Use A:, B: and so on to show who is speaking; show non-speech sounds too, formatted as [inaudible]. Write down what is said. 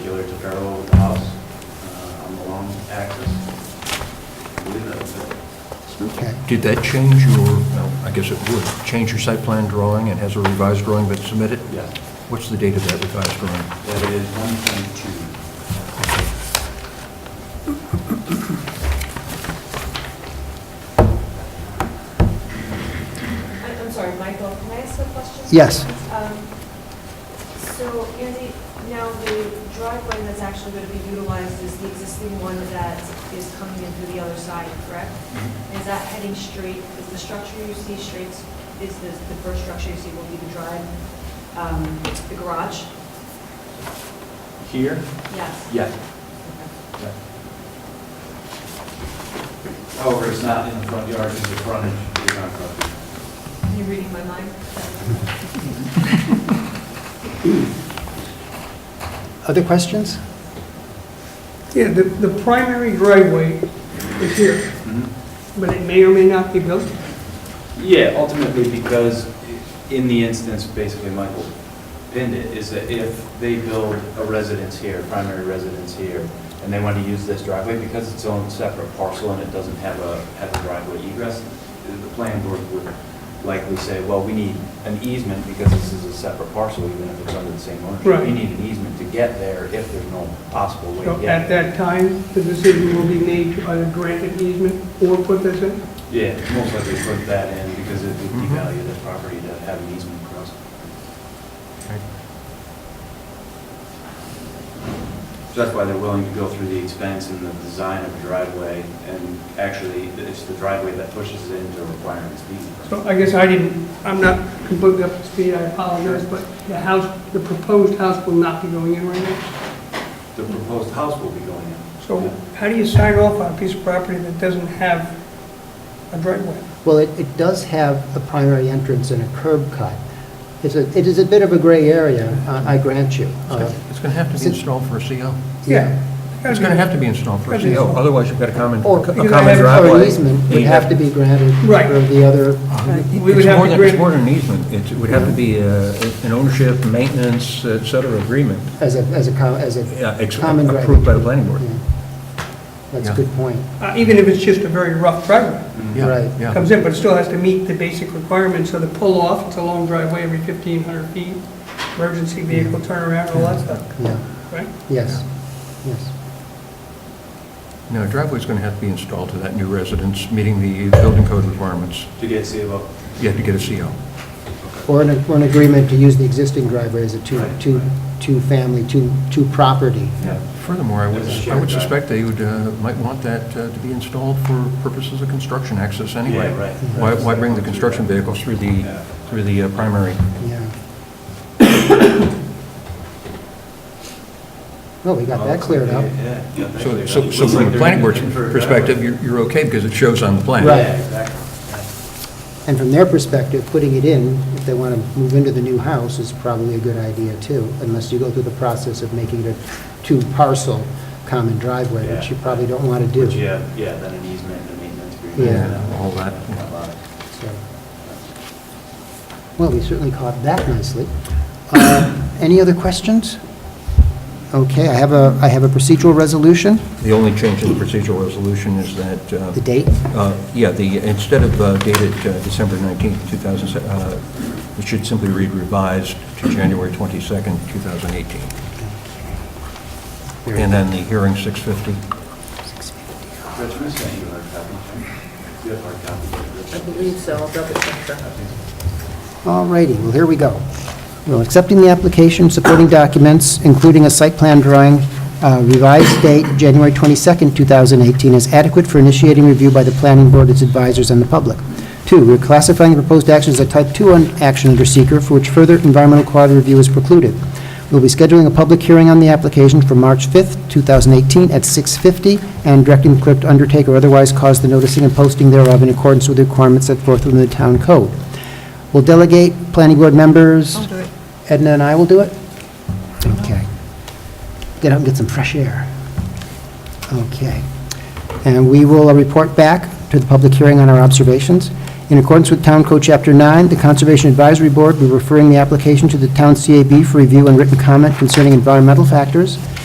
A: parallel with the house uh, on the long axis. I believe that was it.
B: Okay.
C: Did that change your, well, I guess it would, change your site plan drawing and has a revised drawing been submitted?
A: Yes.
C: What's the date of that revised drawing?
A: That is 1.2.
D: I- I'm sorry, Michael, can I ask a question?
B: Yes.
D: Um, So Andy, now the driveway that's actually going to be utilized is the existing one that is coming in through the other side, correct? Is that heading straight, is the structure you see straight, is the, the first structure you see will be the drive, um, the garage?
A: Here?
D: Yes.
A: Yes. Yeah. However, it's not in the front yard, it's the frontage, it's not frontage.
D: Are you reading my mind?
B: Other questions?
E: Yeah, the, the primary driveway is here, but it may or may not be built.
A: Yeah, ultimately, because in the instance, basically, Michael pinned it, is that if they build a residence here, primary residence here, and they want to use this driveway because it's own separate parcel and it doesn't have a, have a driveway egress, the planning board would likely say, well, we need an easement because this is a separate parcel, even if it's under the same ownership.
E: Right.
A: We need an easement to get there if there's no possible way to
E: So
A: get
E: at
A: there.
E: that time, the decision will be made to either grant an easement or put this in.
A: Yeah, most likely put that in because it would
C: Mhm.
A: devalue the property to have an easement across. So that's why they're willing to go through the expense and the design of the driveway, and actually, it's the driveway that pushes it into requiring speed.
E: So I guess I didn't, I'm not completely up to speed, I apologize, but the house, the proposed house will not be going in right now.
A: The proposed house will be going in.
E: So how do you sign off on a piece of property that doesn't have a driveway?
B: Well, it, it does have a primary entrance and a curb cut. It's a, it is a bit of a gray area, uh, I grant you. Uh,
C: It's going to have to be installed for a CO.
E: Yeah.
C: It's going to have to be installed for a
E: Gotta be
C: CO,
E: installed.
C: otherwise you've got a common, a
B: Or-
C: common
E: You're gonna have-
C: driveway.
B: Or an easement would
C: Yeah.
B: have to be granted
E: Right.
B: for the other,
E: We would
C: It's
E: have
C: more than,
E: to
C: it's
E: grant-
C: more than an easement, It's- it would have to be uh, an ownership, maintenance, et cetera, agreement,
B: as a, as a, co- as
C: Yeah,
B: a
C: ex-
B: common driveway.
C: approved by the planning board.
B: Yeah. That's a
C: Yeah.
B: good point.
E: Uh, Even if it's just a very rough driveway.
C: Yeah,
B: Right.
C: yeah.
E: comes in, but it still has to meet the basic requirements of the pull-off, it's a long driveway every 1,500 feet, emergency vehicle turnaround, all that stuff,
B: Yeah,
E: right?
B: yes, yes.
C: No, a driveway's going to have to be installed to that new residence, meeting the building code requirements.
A: To get CBO.
C: You have to get a CO.
B: Or an, or an agreement to use the existing driveway as a two,
A: Right.
B: two, two-family, two, two-property.
A: Yeah.
C: Furthermore, I would,
A: There's a
C: I would
A: shared drive.
C: suspect they would, uh, might want that uh, to be installed for purposes of construction access anyway.
A: Yeah, right.
C: Why, why bring the construction vehicles through
A: Yeah.
C: the, through the uh, primary?
B: Yeah. [coughs] Well, we got that cleared up.
A: Yeah. yeah, that
C: So,
A: cleared
C: so
A: up.
C: so from the planning board's
A: Looks like they're uh, gonna
C: perspective, you're, you're okay because it shows on the plan.
A: Yeah,
B: Right.
A: exactly.
B: And from their perspective, putting it in, if they want to move into the new house, is probably a good idea too, unless you go through the process of making it a two-parcel common driveway, which you probably don't want to do.
A: But yeah, yeah, then an easement and a maintenance agreement.
B: Yeah.
A: and
C: All that.
A: a lot.
B: So, Well, we certainly caught that nicely. Uh, Any other questions? Okay, I have a, I have a procedural resolution,
C: The only change in the procedural resolution is that, uh,
B: the date.
C: uh, yeah, the, instead of uh, dated uh, December 19th, 2000, uh, it should simply read revised to January 22nd, 2018.
B: Very
C: And uh, then the hearing 650.
A: Rich, I'm gonna send you a hard copy. Do you have hard copies?
F: I believe so, I'll double check that.
B: All righty, well, here we go. Well, accepting the application, supporting documents, including a site plan drawing, uh, revised date, January 22nd, 2018, is adequate for initiating review by the planning board, its advisors, and the public. Two, we're classifying proposed actions as a type 2 un- action under seeker, for which further environmental quality review is precluded. We'll be scheduling a public hearing on the application for March 5th, 2018, at 6:50, and directing the clerk to undertake or otherwise cause the noticing and posting thereof in accordance with the requirements set forth within the town code. We'll delegate planning board members.
F: I'll do it.
B: Edna and I will do it? Okay. Get out and get some fresh air. Okay. And we will uh, report back to the public hearing on our observations. In accordance with Town Code Chapter 9, the Conservation Advisory Board will be referring the application to the Town CAB for review and written comment concerning environmental factors.